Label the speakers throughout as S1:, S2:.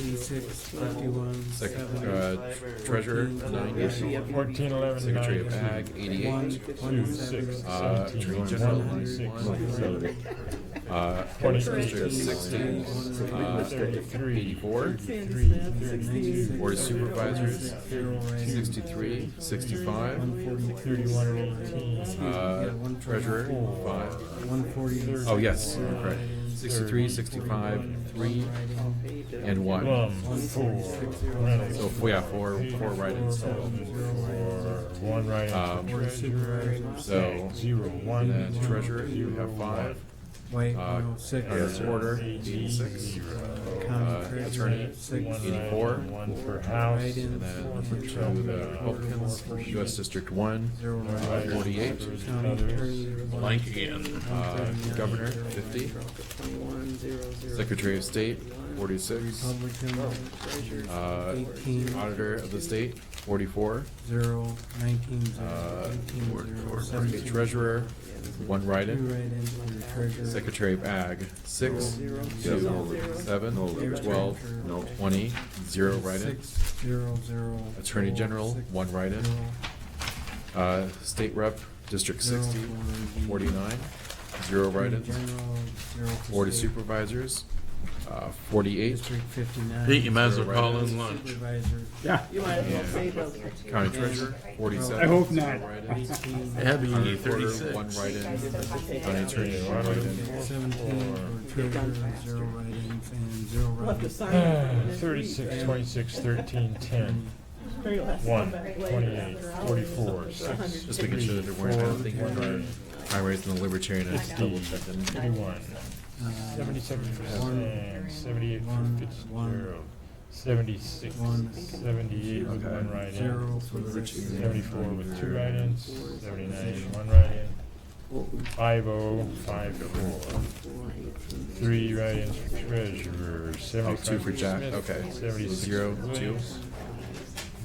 S1: Eighty-six, fifty-one.
S2: Second,
S1: seven,
S2: uh, treasurer, nine ninety,
S3: Fourteen eleven
S2: secretary of
S3: nine,
S2: ag,
S1: one,
S2: eighty-eight,
S1: one, seven,
S3: two, six,
S2: uh,
S3: seventeen,
S2: attorney
S3: one,
S2: general,
S3: one, six,
S2: one,
S3: seven,
S2: uh,
S3: Twenty.
S2: administrator, sixty, uh,
S3: thirty-three,
S2: eighty-four,
S1: ninety-six,
S2: Board of Supervisors,
S1: zero, eight,
S2: sixty-three, sixty-five,
S1: one forty-six,
S3: thirty-one eighteen,
S2: uh, treasurer, five.
S1: One forty.
S2: Oh, yes, you're correct, sixty-three, sixty-five, three, and one.
S3: one, four, Reynolds.
S2: So, yeah, four, four write-ins
S3: Four,
S2: total.
S3: One
S2: Um,
S3: write-in for treasurer.
S2: So,
S3: Zero, one.
S2: then treasurer, you
S3: zero,
S2: have five,
S1: Wait,
S2: uh,
S1: no, six.
S2: uh,
S3: Yes, sir.
S2: order, eighty-six, uh, attorney,
S3: Six, one
S2: eighty-four,
S3: write-in, One for House.
S1: Write-in.
S2: and then to the Republicans, US District One,
S1: Zero,
S3: Write-in for
S2: 48.
S1: county
S3: others.
S1: attorney, one,
S4: Blank again.
S2: uh, governor, fifty, secretary of state, forty-six,
S1: Republican,
S2: uh,
S1: eighteen,
S2: auditor of the state, forty-four,
S1: zero, nineteen,
S2: uh,
S1: zero, eighteen,
S2: or-
S1: zero,
S2: or- okay,
S1: seventeen.
S2: treasurer, one
S1: Two
S2: write-in,
S1: write-ins for the treasurer.
S2: secretary of ag, six, two, seven,
S1: Zero
S2: twelve,
S1: treasurer.
S2: twenty, zero write-in,
S1: Six, zero, zero.
S2: attorney
S1: four,
S2: general,
S1: six,
S2: one write-in,
S1: zero,
S2: uh, state rep, district
S1: zero,
S2: sixty,
S1: one,
S2: forty-nine, zero
S1: attorney
S2: write-ins,
S1: general, zero for
S2: board of
S1: state,
S2: supervisors, uh, forty-eight,
S1: District fifty-nine.
S4: Pete, you might as well call in lunch.
S1: Supervisor,
S2: county treasurer, forty-seven.
S5: I hope not.
S2: zero write-ins,
S1: eighteen,
S4: Abby, you need
S2: Recorder,
S4: thirty-six.
S2: One write-in, county attorney,
S3: Yeah,
S2: one
S3: write-in.
S2: write-in,
S1: seventeen, for treasurer, zero write-ins, and zero write-ins.
S3: Thirty-six, twenty-six, thirteen, ten. One, twenty-eight, forty-four, six.
S2: just making sure that there weren't
S3: Four,
S2: anything regarding primaries and the libertarian, I just double checked them.
S3: Thirty-one,
S1: Uh,
S3: seventy-seven percent, seventy-eight,
S1: One, one,
S3: fifty-zero, seventy-six,
S1: one.
S3: seventy-eight with
S2: Okay.
S3: one write-in,
S1: Zero for the
S3: seventy-four with two write-ins, seventy-nine, one write-in, five oh, five four. Three write-ins for treasurer,
S2: Oh,
S3: seventy-five.
S2: two for Jack,
S3: Smith,
S2: okay.
S3: Seventy-six.
S2: Zero,
S3: for
S2: two.
S3: Williams.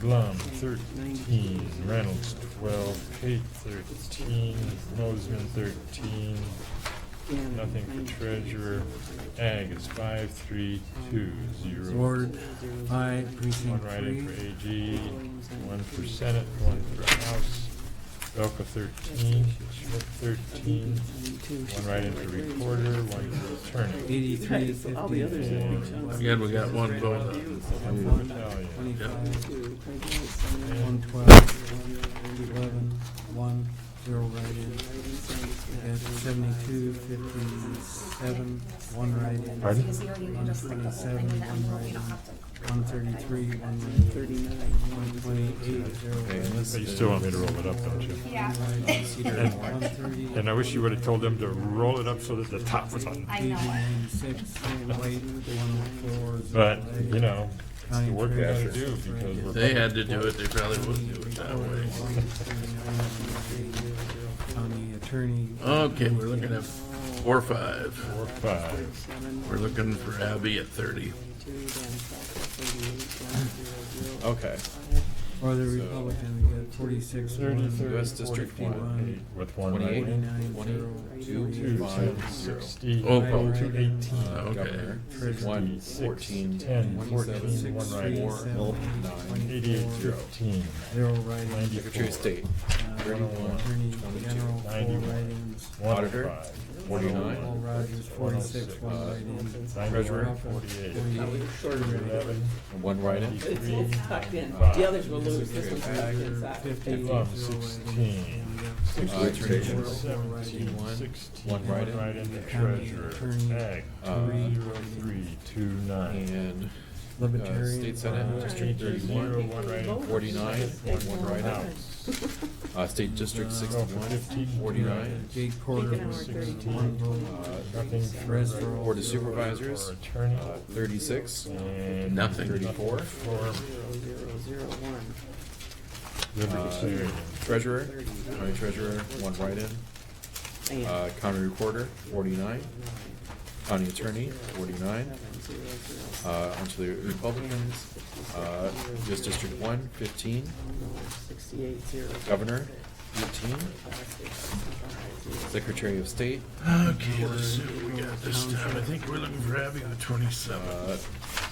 S3: Blum, thirteen, Reynolds, twelve, Pate, thirteen, Mosman, thirteen, nothing for treasurer. Ag is five, three, two, zero.
S1: Ward five,
S3: One
S1: precinct
S3: write-in
S1: three.
S3: for AG, one for Senate, one for House. Belka thirteen, Schmidt thirteen, one write-in for recorder, one for attorney.
S1: Eighty-three, fifty-four.
S6: All the others are Oh, big chunks.
S4: Again, we got one vote
S3: One battalion.
S1: Twenty-five, one
S3: And
S1: twelve, eleven, one, zero write-in. That's seventy-two, fifty-seven, one write-in.
S3: Pardon?
S1: One twenty-seven, one write-in. One thirty-three, one write-in. One twenty-eight, zero
S3: But
S1: write-in.
S3: you still want me to roll it up, don't you?
S7: Yeah.
S1: One thirty.
S3: And I wish you would have told them to roll it up so that the top was on.
S7: I know it.
S3: But,
S1: But,
S3: you know, it's the work we gotta do because we're.
S4: They had to do it, they probably wouldn't do it that way.
S1: County attorney.
S4: Okay, we're looking at four, five.
S3: Four, five.
S4: We're looking for Abby at thirty.
S6: Oh.
S2: Okay,
S1: Or the Republican, we got forty-six.
S3: Thirty,
S1: one,
S3: thirty,
S2: US District
S3: forty-one, eight, with one
S2: twenty-eight,
S3: right.
S2: twenty, two,
S3: Two,
S2: five,
S3: seven,
S2: zero.
S3: sixty,
S4: Oh,
S3: nine,
S4: oh.
S3: two,
S2: Uh,
S3: eighteen,
S2: governor, one, fourteen,
S3: ten,
S2: twenty-seven,
S3: fourteen,
S1: Six,
S3: one
S1: three,
S3: right.
S2: four,
S1: seven,
S2: nine,
S3: eighty-eight,
S2: zero.
S3: fifteen,
S1: Zero write-ins.
S2: secretary of state,
S1: Uh, Attorney General, four
S3: Ninety-one.
S1: write-ins.
S3: one,
S2: Auditor,
S3: five. oh
S2: forty-nine.
S1: Paul Rogers, forty-six, one write-in.
S2: Treasurer,
S3: Forty-eight.
S1: Forty-eight,
S3: Eleven,
S2: one write-in,
S3: three,
S6: Tucked in.
S3: Five.
S6: The others will lose. This one's tucked
S1: Tiger,
S6: inside.
S1: fifty, zero
S3: Plum,
S1: write-ins.
S3: sixteen.
S2: uh, attorney
S3: Seventeen,
S2: general,
S1: Four
S3: seventeen,
S2: write-in.
S3: sixteen,
S2: One
S3: one
S2: write-in.
S3: write-in, the
S1: County
S3: treasurer,
S1: attorney,
S3: ag,
S2: uh,
S3: two, zero, three, two, nine.
S2: and uh,
S1: Libertarian.
S2: state senate,
S1: five,
S2: district
S3: Zero,
S2: thirty-one,
S3: one write-in.
S2: forty-nine, one write-in,
S3: House,
S2: uh, state district sixty-one,
S3: Fifteen.
S2: forty-nine,
S1: Jake Porter was
S3: Sixteen.
S1: one vote.
S2: uh,
S3: nothing for
S1: Rest
S3: regular
S1: roll.
S2: board of supervisors,
S3: or attorney,
S2: uh, thirty-six,
S3: and
S4: Nothing.
S2: thirty-four,
S3: for
S2: uh,
S3: libertarian.
S2: Uh, treasurer, county treasurer, one write-in, Uh, county recorder, forty-nine. County attorney, forty-nine. Uh, onto the Republicans, uh, just District One, fifteen. Governor, eighteen. Secretary of State,
S4: Okay, let's see what we got this time. I think we're looking for Abby with twenty-seven.
S2: uh,